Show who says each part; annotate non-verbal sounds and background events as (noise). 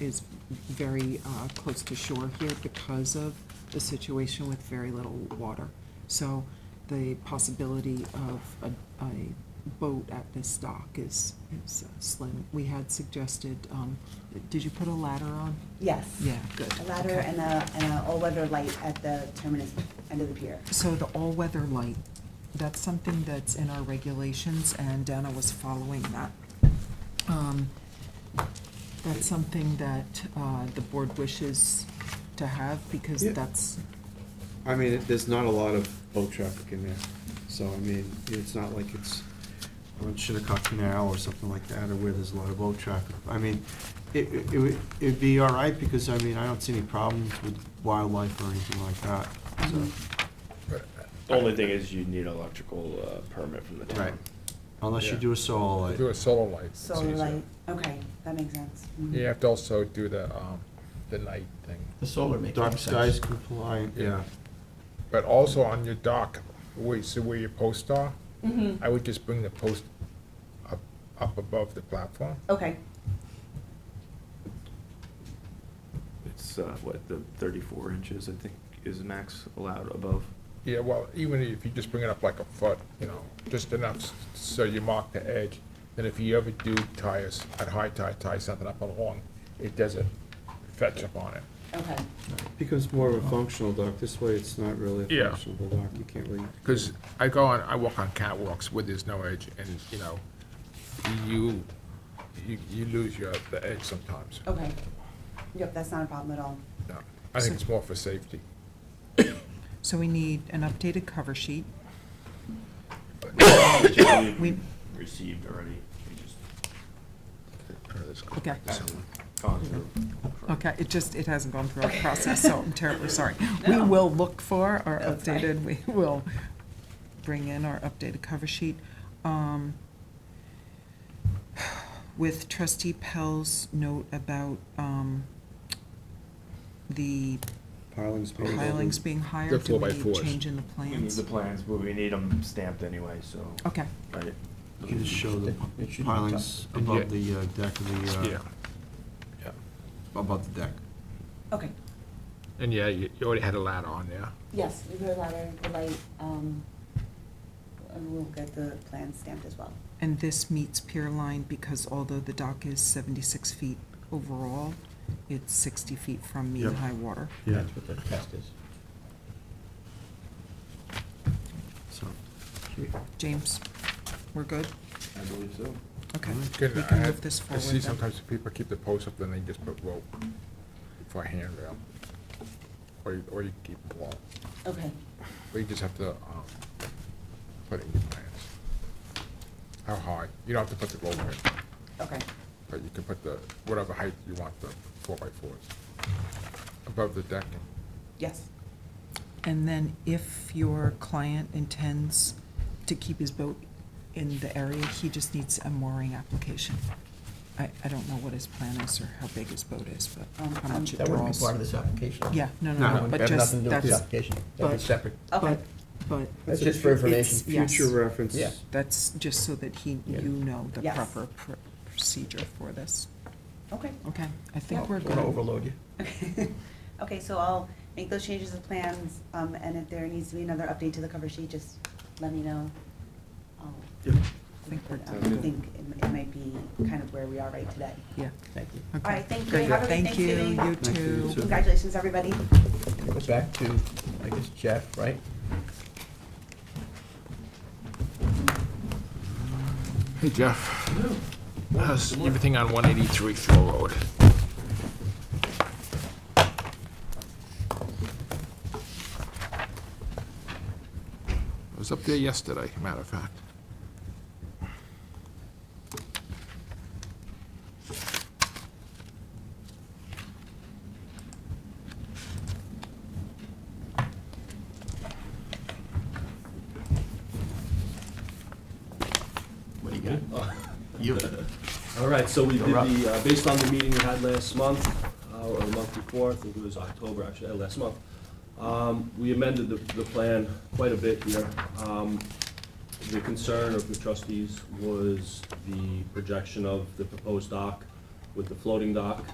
Speaker 1: is very uh, close to shore here because of the situation with very little water. So the possibility of a, a boat at this dock is, is uh, slim. We had suggested, um, did you put a ladder on?
Speaker 2: Yes.
Speaker 1: Yeah, good.
Speaker 2: A ladder
Speaker 1: okay.
Speaker 2: and a, and a all-weather light at the terminus, end of the pier.
Speaker 1: So the all-weather light, that's something that's in our regulations, and Dana was following that. Um, That's something that uh, the board wishes to have, because
Speaker 3: Yeah.
Speaker 1: that's,
Speaker 3: I mean, it- there's not a lot of boat traffic in there, so, I mean, it's not like it's on Shinnecock Canal or something like that, or where there's a lot of boat traffic. I mean, it, it it would, it'd be all right, because, I mean, I don't see any problems with wildlife or anything like that, so,
Speaker 4: Only thing is you need electrical uh, permit from the town.
Speaker 3: right. Unless you
Speaker 5: Yeah.
Speaker 3: do a solar
Speaker 5: Do
Speaker 3: light.
Speaker 5: a solar light. it's
Speaker 2: Solar
Speaker 5: easier.
Speaker 2: light, okay, that makes sense. Mhm.
Speaker 5: You have to also do the, um, the night thing.
Speaker 6: The solar makes
Speaker 3: Dark
Speaker 6: sense.
Speaker 3: skies compliant, yeah.
Speaker 5: But also on your dock, where, so where your posts are,
Speaker 2: Mm-hmm.
Speaker 5: I would just bring the post up, up above the platform.
Speaker 2: Okay,
Speaker 4: It's, uh, what, the thirty-four inches, I think, is max allowed above.
Speaker 5: Yeah, well, even if you just bring it up like a foot, you know, just enough s- so you mark the edge. Then if you ever do tires, at high tide, tie something up along, it doesn't fetch up on it.
Speaker 2: okay,
Speaker 3: Becomes more of a functional dock, this way it's not really a
Speaker 5: Yeah.
Speaker 3: functional dock, you can't really.
Speaker 5: Because I go on, I walk on catwalks where there's no edge and, you know, you, you, you lose your, the edge sometimes.
Speaker 2: okay. Yep, that's not a problem at all.
Speaker 5: No, I think it's more for safety.
Speaker 1: so we need an updated cover sheet.
Speaker 4: We received already, we just
Speaker 1: Okay,
Speaker 4: gone through.
Speaker 1: okay, it just, it hasn't gone through our process, so I'm
Speaker 4: (laughs)
Speaker 1: terribly sorry. We will look for our
Speaker 2: That's fine.
Speaker 1: updated, we will bring in our updated cover sheet. Um, With trustee Pell's note about um, the
Speaker 3: Pilings.
Speaker 5: Oh,
Speaker 3: being built in.
Speaker 1: pilings being higher,
Speaker 5: They're
Speaker 1: do we
Speaker 5: four by
Speaker 1: need
Speaker 5: fours.
Speaker 1: change in the
Speaker 4: We need
Speaker 1: plans?
Speaker 4: the plans, but we need them stamped anyway, so.
Speaker 1: Okay,
Speaker 4: Right.
Speaker 3: You can just show the
Speaker 6: It should be
Speaker 3: pilings
Speaker 5: top.
Speaker 3: above the uh, deck of the, uh,
Speaker 5: Yeah.
Speaker 3: above the deck.
Speaker 2: Okay,
Speaker 5: And yeah, you you already had a ladder on there.
Speaker 2: yes, we put a ladder, the light, um, and we'll get the plan stamped as well.
Speaker 1: and this meets pier line because although the dock is 76 feet overall, it's 60 feet from mean
Speaker 3: Yep.
Speaker 1: high water.
Speaker 3: Yeah.
Speaker 6: That's what the test is.
Speaker 3: So,
Speaker 1: James, we're good?
Speaker 4: I believe so.
Speaker 1: Okay.
Speaker 5: Mm-hmm. Good,
Speaker 1: We
Speaker 5: I
Speaker 1: can
Speaker 5: had-
Speaker 1: move this
Speaker 5: uh, I see
Speaker 1: forward then.
Speaker 5: sometimes people keep the post up, then they just put rope for a handrail. Or you, or you keep a wall,
Speaker 2: Okay,
Speaker 5: or you just have to, um, put it in your plans. How high, you don't have to put the rope in,
Speaker 2: okay,
Speaker 5: but you can put the, whatever height you want the four by fours. Above the deck,
Speaker 2: yes,
Speaker 1: And then if your client intends to keep his boat in the area, he just needs a mooring application. I, I don't know what his plan is or how big his boat is,
Speaker 2: Um,
Speaker 1: but how much it
Speaker 6: That wouldn't be
Speaker 1: draws.
Speaker 6: part of this application.
Speaker 1: Yeah, no, no,
Speaker 5: No,
Speaker 1: no,
Speaker 5: that
Speaker 1: but
Speaker 5: has
Speaker 1: just,
Speaker 6: Nothing to do with the
Speaker 1: that's,
Speaker 6: application. That'd
Speaker 1: but-
Speaker 6: be separate.
Speaker 1: but,
Speaker 2: okay,
Speaker 1: but
Speaker 6: That's just for
Speaker 1: it's,
Speaker 6: information.
Speaker 1: yes.
Speaker 3: Future reference.
Speaker 6: Yeah.
Speaker 5: uh,
Speaker 1: That's just so that he,
Speaker 6: Yeah.
Speaker 1: you know the
Speaker 2: Yes.
Speaker 1: proper pr- procedure for this.
Speaker 2: okay.
Speaker 1: Okay, I think
Speaker 2: Yep.
Speaker 1: we're
Speaker 6: Don't
Speaker 1: good.
Speaker 6: overload you.
Speaker 2: Okay, (laughs) so I'll make those changes to plans, um, and if there needs to be another update to the cover sheet, just let me know. I'll-
Speaker 4: Yep.
Speaker 1: I think we're
Speaker 2: I
Speaker 1: good.
Speaker 2: think it it might be kind of where we are right today.
Speaker 1: Yeah.
Speaker 6: Thank you.
Speaker 1: Okay.
Speaker 2: All right, thank you,
Speaker 1: Great.
Speaker 2: have a good
Speaker 1: Thank you,
Speaker 2: Thanksgiving.
Speaker 1: you
Speaker 3: Thank you, you
Speaker 1: too.
Speaker 3: too.
Speaker 2: Congratulations, everybody.
Speaker 6: It was back to, I guess, Jeff, right?
Speaker 5: Hey Jeff. How's everything on one eighty-three Thrill Road? I was up there yesterday, matter of fact.
Speaker 6: What do you got? You.
Speaker 7: All right, so we did
Speaker 6: You're up.
Speaker 7: the, uh, based on the meeting we had last month, uh, or the month before, I think it was October, actually, uh, last month, um, we amended the, the plan quite a bit here. Um, The concern of the trustees was the projection of the proposed dock with the floating dock